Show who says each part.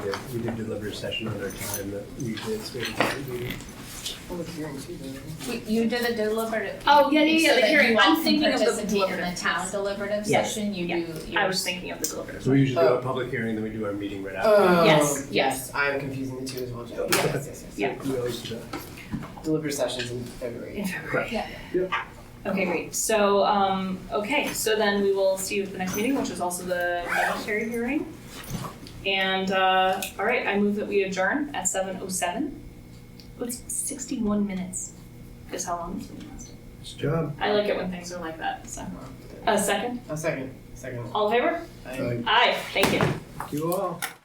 Speaker 1: we did delivery session another time that we did space.
Speaker 2: Public hearing too, didn't we?
Speaker 3: We- You did the deliberative.
Speaker 4: Oh, yeah, yeah, yeah,
Speaker 3: so
Speaker 4: the
Speaker 3: that you
Speaker 4: hearing.
Speaker 3: all
Speaker 4: I'm
Speaker 3: can
Speaker 4: thinking of the
Speaker 3: participate in the
Speaker 4: deliberative.
Speaker 3: town deliberative
Speaker 4: Yes.
Speaker 3: session, you
Speaker 4: Yeah.
Speaker 3: do.
Speaker 4: I
Speaker 3: your-
Speaker 4: was thinking of the deliberative.
Speaker 1: So we usually do
Speaker 2: Oh.
Speaker 1: a public hearing, then we do our meeting right after.
Speaker 2: Oh,
Speaker 4: Yes,
Speaker 2: yes,
Speaker 4: yes.
Speaker 2: I'm confusing the two as well. Joe. Yes, yes, yes.
Speaker 4: Yeah.
Speaker 1: We always do that.
Speaker 2: Delivery sessions in February.
Speaker 1: Correct.
Speaker 4: Okay, great. So, um, okay, so then we will see you at the next meeting, which is also the budgetary hearing. And, uh, all right, I move that we adjourn at seven oh seven. Oh, It's sixty-one minutes is how long this meeting lasted.
Speaker 1: Nice job.
Speaker 4: I like it when things are like that, so. A second?
Speaker 2: A Oh, second, second.
Speaker 4: All in favor?
Speaker 2: I-
Speaker 1: Thank
Speaker 4: Aye, thank you.
Speaker 1: you all.